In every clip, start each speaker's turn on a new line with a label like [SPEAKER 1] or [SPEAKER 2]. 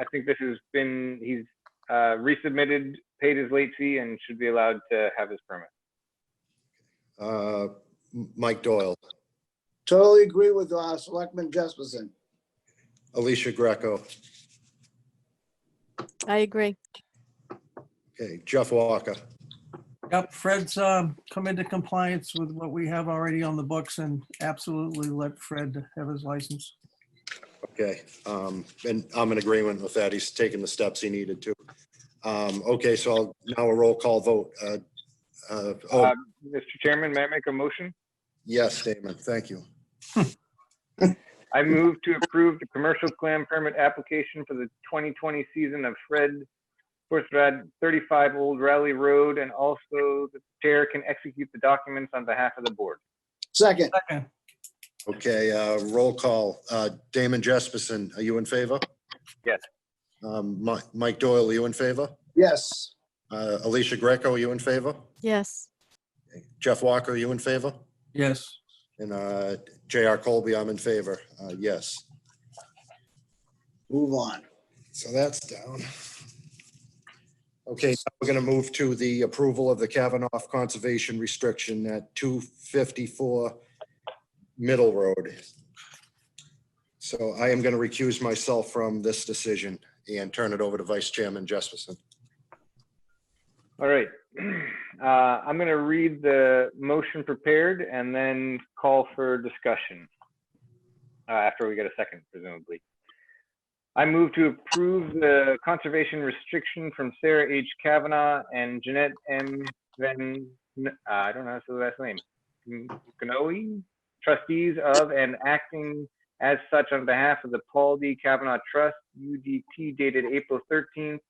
[SPEAKER 1] I think this has been, he's uh, resubmitted, paid his late fee and should be allowed to have his permit.
[SPEAKER 2] Uh, M- Mike Doyle,
[SPEAKER 3] Totally agree with uh, Selectman Jesperson.
[SPEAKER 2] Alicia Greco,
[SPEAKER 4] I agree.
[SPEAKER 2] okay, Jeff Walker,
[SPEAKER 5] Yep, Fred's um, come into compliance with what we have already on the books and absolutely let Fred have his license.
[SPEAKER 2] okay. um, And I'm in agreement with that. He's taken the steps he needed to. Um, Okay, so I'll now a roll call vote. Uh, uh, Oh,
[SPEAKER 1] Uh, Mr. Chairman, may I make a motion?
[SPEAKER 2] yes, Damon, thank you.
[SPEAKER 1] I move to approve the commercial clam permit application for the 2020 season of Fred Horsrad 35 Old Rally Road, and also the chair can execute the documents on behalf of the board.
[SPEAKER 3] Second,
[SPEAKER 5] Second,
[SPEAKER 2] Okay, uh, roll call. Uh, Damon Jesperson, are you in favor?
[SPEAKER 1] Yes.
[SPEAKER 2] Um, Mi- Mike Doyle, are you in favor?
[SPEAKER 3] yes,
[SPEAKER 2] Uh, Alicia Greco, are you in favor?
[SPEAKER 4] Yes,
[SPEAKER 2] Jeff Walker, are you in favor?
[SPEAKER 5] yes.
[SPEAKER 2] And uh, JR Colby, I'm in favor. Uh, Yes.
[SPEAKER 3] move on.
[SPEAKER 2] So that's down. Okay, now we're going to move to the approval of the Kavanaugh Conservation Restriction at 254 Middle Road. So I am going to recuse myself from this decision and turn it over to Vice Chairman Jesperson.
[SPEAKER 1] All right. Uh, I'm going to read the motion prepared and then call for discussion uh, after we get a second, presumably. I move to approve the conservation restriction from Sarah H. Kavanaugh and Jeanette M. Van, uh, I don't know how to say the last name, Gnoe, trustees of and acting as such on behalf of the Paul D. Kavanaugh Trust, UDT dated April 13th,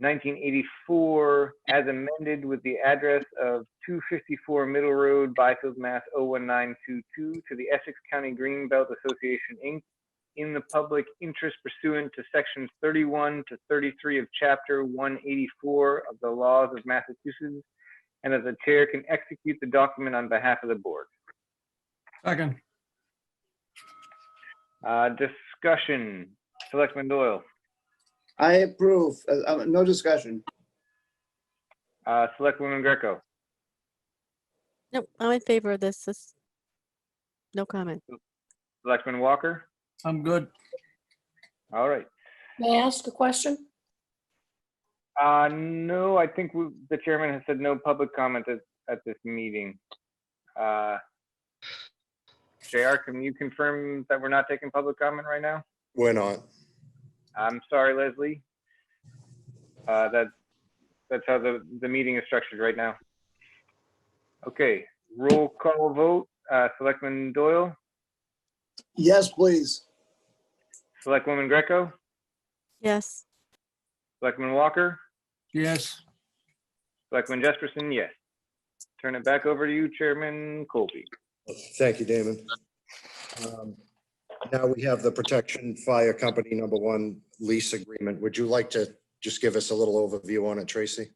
[SPEAKER 1] 1984, as amended with the address of 254 Middle Road, Byfield, Mass. 01922, to the Essex County Greenbelt Association, Inc., in the public interest pursuant to Sections 31 to 33 of Chapter 184 of the laws of Massachusetts, and as the chair can execute the document on behalf of the board.
[SPEAKER 5] Second,
[SPEAKER 1] Uh, Discussion, Selectman Doyle,
[SPEAKER 3] I approve. Uh, uh, No discussion.
[SPEAKER 1] uh, Selectwoman Greco,
[SPEAKER 4] no, I'm in favor of this. This, no comment.
[SPEAKER 1] Selectman Walker,
[SPEAKER 5] I'm good.
[SPEAKER 1] all right.
[SPEAKER 6] May I ask a question?
[SPEAKER 1] Uh, no, I think we- the chairman has said no public comment at, at this meeting. Uh, JR, can you confirm that we're not taking public comment right now?
[SPEAKER 2] We're not.
[SPEAKER 1] I'm sorry, Leslie. Uh, that, that's how the, the meeting is structured right now. Okay, roll call vote, uh, Selectman Doyle,
[SPEAKER 3] Yes, please.
[SPEAKER 1] Selectwoman Greco,
[SPEAKER 4] Yes,
[SPEAKER 1] Selectman Walker,
[SPEAKER 5] Yes,
[SPEAKER 1] Selectman Jesperson, yes. Turn it back over to you, Chairman Colby.
[SPEAKER 2] Thank you, Damon. Um, Now we have the Protection Fire Company Number One Lease Agreement. Would you like to just give us a little overview on it, Tracy?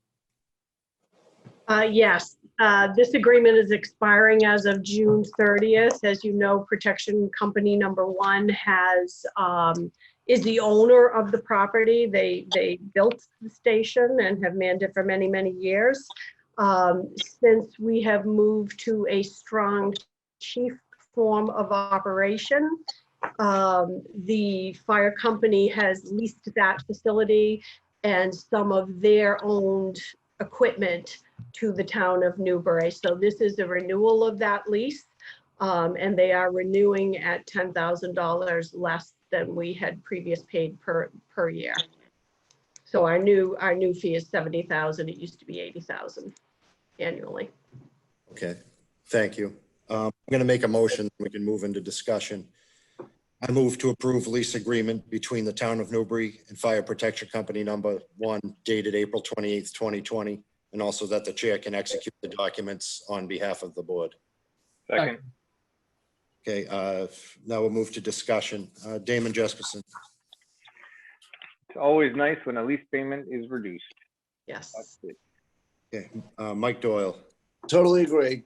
[SPEAKER 6] Uh, Yes, Uh, this agreement is expiring as of June 30th. As you know, Protection Company Number One has, um, is the owner of the property. They, they built the station and have manned it for many, many years. Um, Since we have moved to a strong chief form of operation, um, the fire company has leased that facility and some of their owned equipment to the town of Newbury. So this is a renewal of that lease. um, and they are renewing at ten thousand dollars less than we had previous paid per, per year. So our new, our new fee is seventy thousand. It used to be eighty thousand annually.
[SPEAKER 2] Okay, thank you. Um, I'm going to make a motion, we can move into discussion. I move to approve lease agreement between the Town of Newbury and Fire Protection Company Number One dated April 28th, 2020, and also that the chair can execute the documents on behalf of the board.
[SPEAKER 1] Second,
[SPEAKER 2] Okay, uh, now we'll move to discussion. Uh, Damon Jesperson,
[SPEAKER 1] it's always nice when a lease payment is reduced.
[SPEAKER 6] Yes.
[SPEAKER 1] That's it.
[SPEAKER 2] uh, Mike Doyle,
[SPEAKER 3] Totally agree.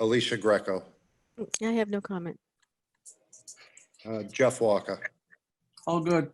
[SPEAKER 2] Alicia Greco,
[SPEAKER 4] I have no comment.
[SPEAKER 2] uh, Jeff Walker,
[SPEAKER 5] All good.